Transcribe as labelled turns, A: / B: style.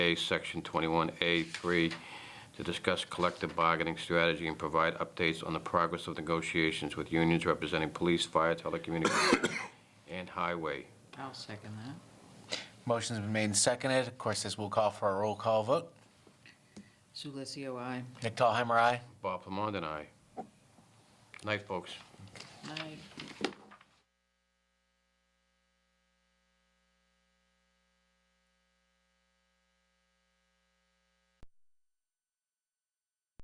A: A, Section 21A3, to discuss collective bargaining strategy and provide updates on the progress of negotiations with unions representing police, fire, telecommunications, and highway.
B: I'll second that.
C: Motion's been made and seconded. Of course, this will call for a roll call vote.
B: Sulesio, aye.
C: Nick Tallheimer, aye.
A: Bob Plamond and I. Night, folks.
B: Night.